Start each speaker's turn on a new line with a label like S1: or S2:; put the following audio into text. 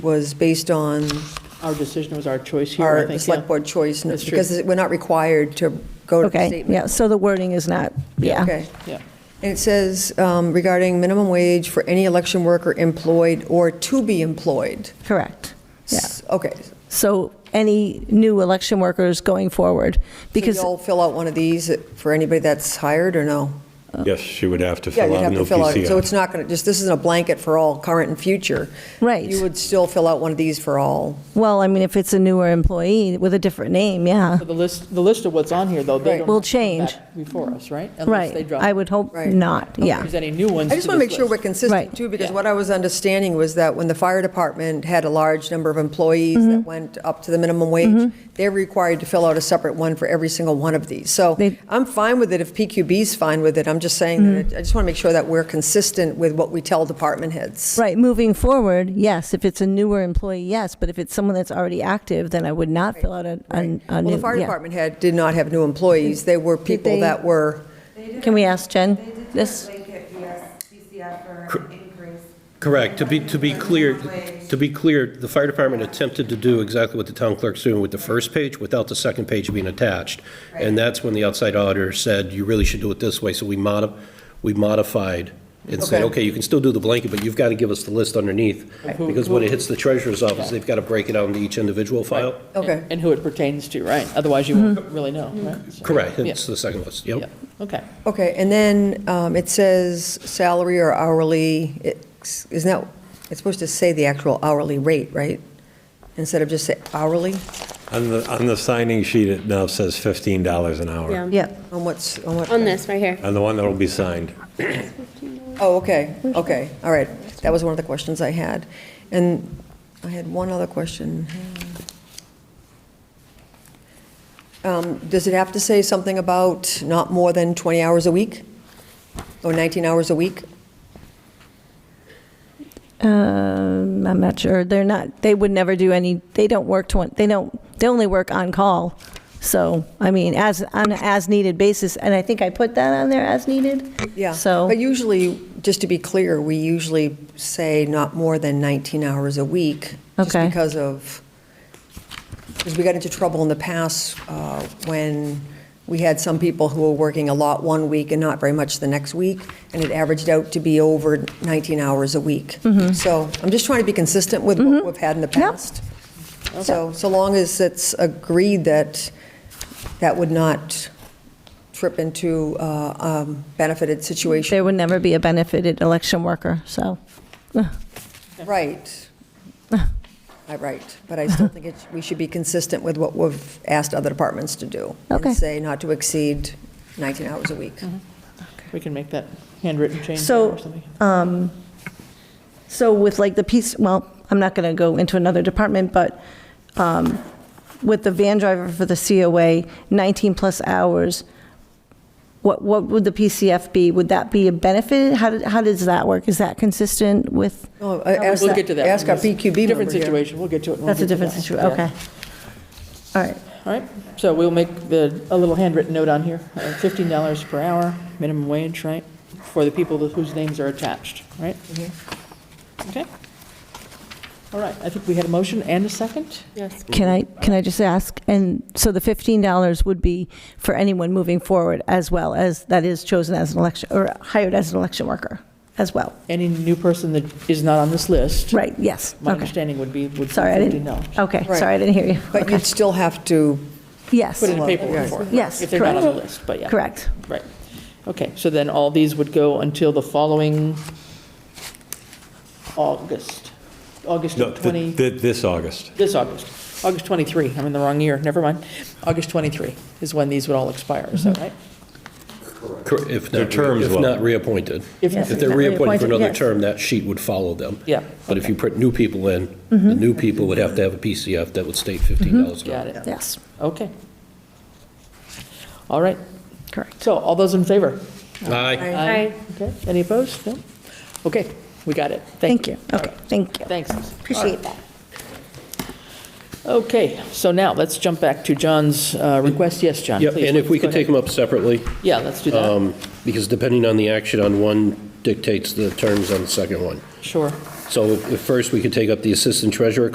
S1: was based on
S2: Our decision was our choice here, I
S1: our
S2: think, yeah.
S1: select board choice,
S2: That's true.
S1: because we're not required to go to the
S3: Okay,
S1: statement.
S3: yeah, so the wording is not, yeah.
S1: Okay.
S2: Yeah.
S1: And it says um, regarding minimum wage for any election worker employed or to be employed.
S3: Correct. Yeah.
S1: S- Okay. So
S3: So any new election workers going forward, because,
S1: you'll fill out one of these for anybody that's hired, or no?
S4: Yes, she would have to
S1: Yeah,
S4: fill
S1: you'd
S4: out
S1: have
S4: an
S1: to fill out, so it's
S4: OPCR.
S1: not going to, just, this isn't a blanket for all current and future.
S3: Right.
S1: You would still fill out one of these for all.
S3: well, I mean, if it's a newer employee with a different name, yeah,
S2: So The list, the list of what's on here, though, they
S1: Right.
S2: don't
S3: Will
S2: have to come
S3: change.
S2: back Before us, right? Unless they
S3: right.
S2: drop,
S3: I would hope
S1: Right.
S3: not, yeah.
S2: there's any new ones
S1: I just
S2: to
S1: want to
S2: this
S1: make sure we're
S2: list.
S1: consistent
S3: Right.
S1: too, because
S2: Yeah.
S1: what I was understanding was that when the fire department had a large number of employees
S3: Mm-hmm.
S1: that went up to the minimum wage, they're required to fill out a separate one for every single one of these. So
S3: They- Mm-hmm.
S1: I'm fine with it if PQB's fine with it. I'm just saying that, it- I just want to make sure that we're consistent with what we tell department heads.
S3: Right, moving forward, yes, if it's a newer employee, yes, but if it's someone that's already active, then I would not fill out a, a a new,
S1: Well, the fire
S3: Uh, yeah.
S1: department head did not have new employees. They were people
S3: they-
S1: that were,
S3: Can we ask Jen
S5: They did
S3: this?
S5: link it via CCF for an increase.
S6: Correct. To be, to be clear, to be clear, the fire department attempted to do exactly what the town clerk's doing with the first page without the second page being attached. And that's when the outside auditor said, you really should do it this way. So we modi, we modified and said,
S1: Okay.
S6: okay, you can still do the blanket, but you've got to give us the list underneath. Because when it hits the treasurer's office, they've got to break it out into each individual file.
S1: okay.
S2: And who it pertains to, right? Otherwise, you won't
S3: Mm-hmm.
S2: really know, right? So-
S6: Mm-hmm. Correct.
S2: Yeah,
S6: It's the second list. Yep.
S2: yeah, okay.
S1: Okay, and then um, it says salary or hourly, it's- isn't that, it's supposed to say the actual hourly rate, right? Instead of just say hourly?
S4: On the, on the signing sheet, it now says $15 an hour.
S7: Yeah,
S3: Yeah,
S1: On what's, on what?
S7: on this right here.
S4: On the one that'll be signed.
S1: Oh, okay, okay, all right. That was one of the questions I had. And I had one other question. Um, Does it have to say something about not more than 20 hours a week? Or 19 hours a week?
S3: um, I'm not sure, they're not, they would never do any, they don't work 20, they don't, they only work on call. So, I mean, as, on an as-needed basis, and I think I put that on there, as needed?
S1: Yeah.
S3: So-
S1: But usually, just to be clear, we usually say not more than 19 hours a week.
S3: Okay.
S1: Just because of, because we got into trouble in the past uh, when we had some people who were working a lot one week and not very much the next week, and it averaged out to be over 19 hours a week.
S3: Mm-hmm.
S1: So I'm just trying to be consistent with what we've had in the past. So, so long as it's agreed that that would not trip into uh, um, benefited situation.
S3: There would never be a benefited election worker, so.
S1: Right. I right, but I still think it's, we should be consistent with what we've asked other departments to do.
S3: Okay. Mm-hmm.
S1: And say not to exceed 19 hours a week.
S2: We can make that handwritten change there
S3: So,
S2: or something.
S3: So with like the piece, well, I'm not going to go into another department, but um, with the van driver for the COA, 19-plus hours, what, what would the PCF be? Would that be a benefit? How, did- how does that work? Is that consistent with?
S1: We'll
S2: We'll get to that.
S1: Ask
S2: one.
S1: our PQB member
S2: Different
S1: here.
S2: situation, we'll get to it. when we
S3: That's a
S2: get to
S3: different
S2: that.
S3: situation,
S2: Yeah.
S3: okay. All right,
S2: All right, so we'll make the, a little handwritten note on here, uh, $15 per hour, minimum wage, right? For the people whose names are attached, right?
S3: Mm-hmm.
S2: Okay. All right, I think we had a motion and a second?
S7: Yes.
S3: can I, can I just ask? And so the $15 would be for anyone moving forward as well as, that is chosen as an election, or hired as an election worker as well?
S2: Any new person that is not on this list,
S3: Right, yes,
S2: my
S3: okay.
S2: understanding would be, would be
S3: Sorry, I
S2: $15.
S3: didn't, okay,
S1: Right.
S3: sorry, I didn't hear you.
S1: But
S3: Okay.
S1: you'd still have to,
S3: Yes.
S2: Put in a
S1: Right.
S2: paperwork for it.
S3: Yes,
S2: If they're not on the
S3: correct.
S2: list, but yeah.
S3: Correct.
S2: Right. Okay, so then all these would go until the following August, August
S4: No,
S2: of 20.
S4: th- th- This August.
S2: This August, August 23, I'm in the wrong year, never mind. August 23 is when these would all expire, is
S3: Mm-hmm.
S2: that right?
S6: Cor- If
S4: Their
S6: not,
S4: terms
S6: if
S4: will.
S6: not reappointed.
S2: If-
S6: If
S2: Yes,
S6: they're
S3: if not
S6: reappointed for
S3: reappointed,
S6: another
S3: yes.
S6: term, that sheet would follow them.
S2: Yeah. Mm-hmm.
S6: But if you put new people in, the new people would have to have a PCF that would state $15 an hour.
S2: Got it,
S3: Yes,
S2: okay. All right,
S3: correct.
S2: so all those in favor?
S6: Aye.
S7: Aye.
S2: Okay, any opposed? No? Okay, we got it.
S3: Thank you. Okay, thank you.
S2: Thanks.
S3: Appreciate that.
S2: Okay, so now let's jump back to John's uh, request. Yes, John,
S6: Yep,
S2: please.
S6: and if we
S2: go
S6: could take Uh,
S2: ahead.
S6: them up separately,
S2: Yeah, let's do that,
S6: um, because depending on the action on one dictates the terms on the second one.
S2: sure.
S6: So if if first, we could take up the assistant treasurer